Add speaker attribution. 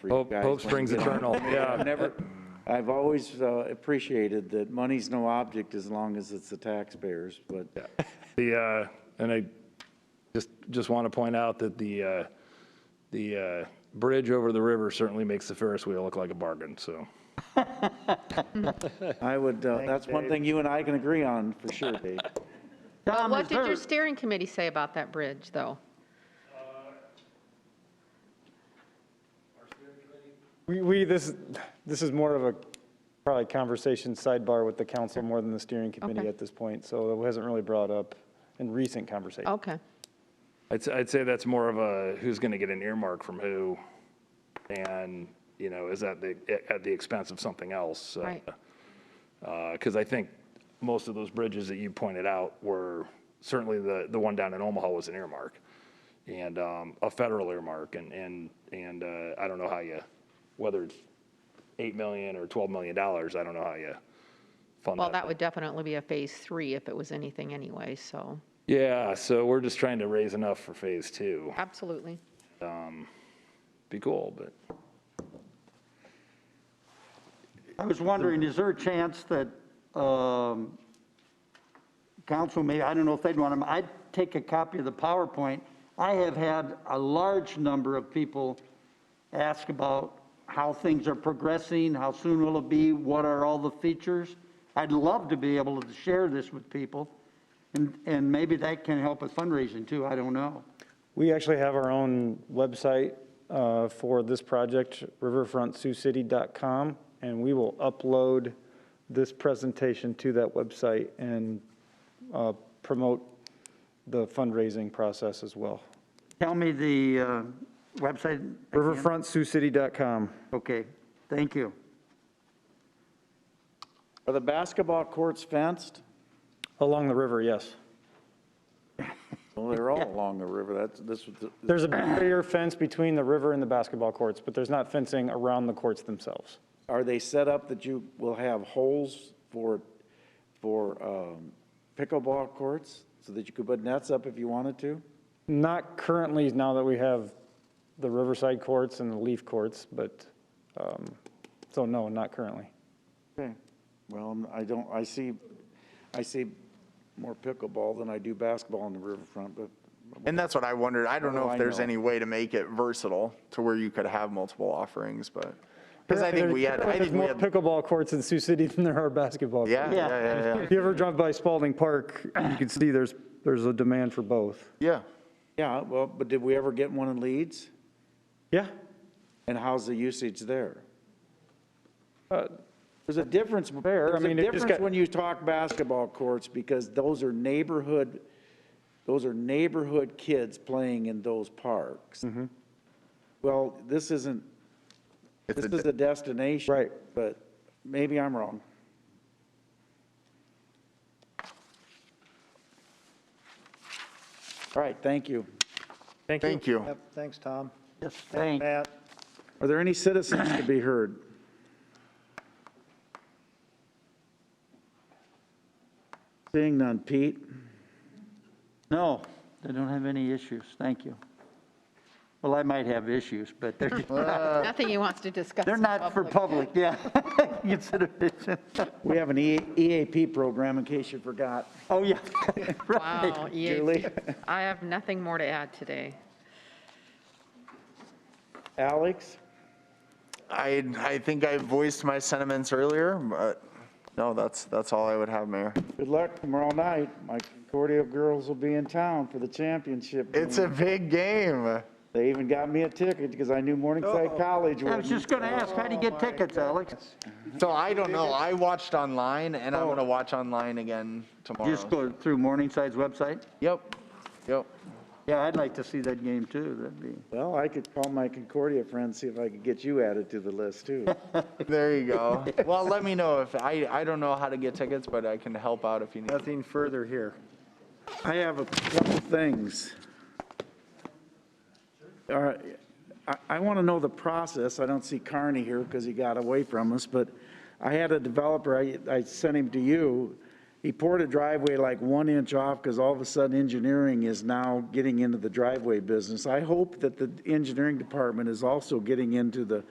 Speaker 1: for you
Speaker 2: Hope,
Speaker 1: guys.
Speaker 2: hope springs eternal,
Speaker 1: I've
Speaker 2: yeah.
Speaker 1: never, I've always uh, appreciated that money's no object as long as it's the taxpayers, but
Speaker 2: The, uh, and I just, just want to point out that the, uh, the uh, bridge over the river certainly makes the Ferris wheel look like a bargain, so.
Speaker 1: I would, uh, that's one thing you and I can agree on for sure, Dave.
Speaker 3: Tom
Speaker 4: What
Speaker 3: is
Speaker 4: did your
Speaker 3: hurt.
Speaker 4: steering committee say about that bridge, though?
Speaker 5: We, we, this, this is more of a probably conversation sidebar with the council more than the steering committee
Speaker 4: Okay.
Speaker 5: at this point, so it hasn't really brought up in recent conversation.
Speaker 4: Okay.
Speaker 2: I'd, s- I'd say that's more of a who's going to get an earmark from who, and, you know, is that the, at the expense of something else?
Speaker 4: Right.
Speaker 3: uh,
Speaker 2: Because Uh, I think most of those bridges that you pointed out were, certainly the, the one down in Omaha was an earmark, and um, a federal earmark, and, and, and uh, I don't know how you, whether it's 8 million or 12 million dollars, I don't know how you fund that.
Speaker 4: Well, that would definitely be a phase three if it was anything anyway, so,
Speaker 2: Yeah, so we're just trying to raise enough for phase two.
Speaker 4: absolutely.
Speaker 2: Be cool, but.
Speaker 3: I was wondering, is there a chance that um, council may, I don't know if they'd want them, I'd take a copy of the PowerPoint. I have had a large number of people ask about how things are progressing, how soon will it be, what are all the features? I'd love to be able to share this with people, and, and maybe that can help with fundraising too, I don't know.
Speaker 5: We actually have our own website uh, for this project, riverfrontsiouxcity.com, and we will upload this presentation to that website and uh, promote the fundraising process as well.
Speaker 3: Tell me the uh, website. again.
Speaker 5: riverfrontsiouxcity.com.
Speaker 3: Okay, thank you.
Speaker 1: Are the basketball courts fenced?
Speaker 5: Along the river, yes.
Speaker 1: Well, they're all along the river, that's, this was, the-
Speaker 5: There's a barrier fence between the river and the basketball courts, but there's not fencing around the courts themselves.
Speaker 1: are they set up that you will have holes for, for um, pickleball courts? So that you could put nets up if you wanted to?
Speaker 5: Not currently, now that we have the Riverside courts and the Leaf courts, but, um, so no, not currently.
Speaker 1: Okay, well, I'm- I don't, I see, I see more pickleball than I do basketball on the riverfront, but
Speaker 6: And that's what I wondered. I don't
Speaker 1: What do
Speaker 6: know
Speaker 1: I
Speaker 6: if there's
Speaker 1: know?
Speaker 6: any way to make it versatile to where you could have multiple offerings, but, because I think we had, I
Speaker 5: There's
Speaker 6: think we
Speaker 5: more
Speaker 6: had,
Speaker 5: pickleball courts in Sioux City than there are basketball. courts.
Speaker 6: yeah, yeah, yeah, yeah.
Speaker 5: If you ever drive by Spalding Park, you can see there's, there's a demand for both.
Speaker 6: Yeah.
Speaker 1: Yeah, well, but did we ever get one in Leeds?
Speaker 5: Yeah,
Speaker 1: And how's the usage there?
Speaker 5: Uh,
Speaker 1: There's a difference,
Speaker 5: Fair, I
Speaker 1: there's a
Speaker 5: mean, it just
Speaker 1: difference
Speaker 5: got-
Speaker 1: when you talk basketball courts, because those are neighborhood, those are neighborhood kids playing in those parks.
Speaker 5: Mm-hmm.
Speaker 1: Well, this isn't,
Speaker 6: It's
Speaker 1: this
Speaker 6: a
Speaker 1: is a destination.
Speaker 5: Right.
Speaker 1: But maybe I'm wrong. All right, thank you.
Speaker 6: Thank you.
Speaker 7: Yep, thanks, Tom.
Speaker 3: Yes, thanks.
Speaker 7: Matt,
Speaker 1: Are there any citizens to be heard? Seeing none. Pete?
Speaker 3: No, they don't have any issues, thank you. Well, I might have issues, but they're,
Speaker 4: Nothing he wants to discuss.
Speaker 3: Uh, they're
Speaker 4: in
Speaker 3: not for public, yeah. Consider it.
Speaker 1: We have an E- EAP program, in case you forgot.
Speaker 3: Oh, yeah. Right.
Speaker 4: Wow, EAP.
Speaker 1: Julie?
Speaker 4: I have nothing more to add today.
Speaker 1: Alex?
Speaker 6: I, I think I voiced my sentiments earlier, but no, that's, that's all I would have, Mayor.
Speaker 1: Good luck tomorrow night. My Concordia girls will be in town for the championship.
Speaker 6: It's a big game.
Speaker 1: They even got me a ticket because I knew Morningside College
Speaker 3: I was
Speaker 1: wouldn't.
Speaker 3: just going to ask, how do you get tickets, Alex?
Speaker 6: So I don't know. I watched online and I'm going to watch online again
Speaker 3: Just
Speaker 6: tomorrow.
Speaker 3: go through Morningside's website?
Speaker 6: Yep, yep.
Speaker 3: Yeah, I'd like to see that game too, that'd be.
Speaker 1: Well, I could call my Concordia friends, see if I could get you added to the list, too.
Speaker 6: There you go. Well, let me know if, I, I don't know how to get tickets, but I can help out if you need.
Speaker 7: nothing further here.
Speaker 1: I have a couple things. All right, I, I want to know the process. I don't see Carney here because he got away from us, but I had a developer, I, I sent him to you. He poured a driveway like one inch off because all of a sudden engineering is now getting into the driveway business. I hope that the engineering department is also getting into the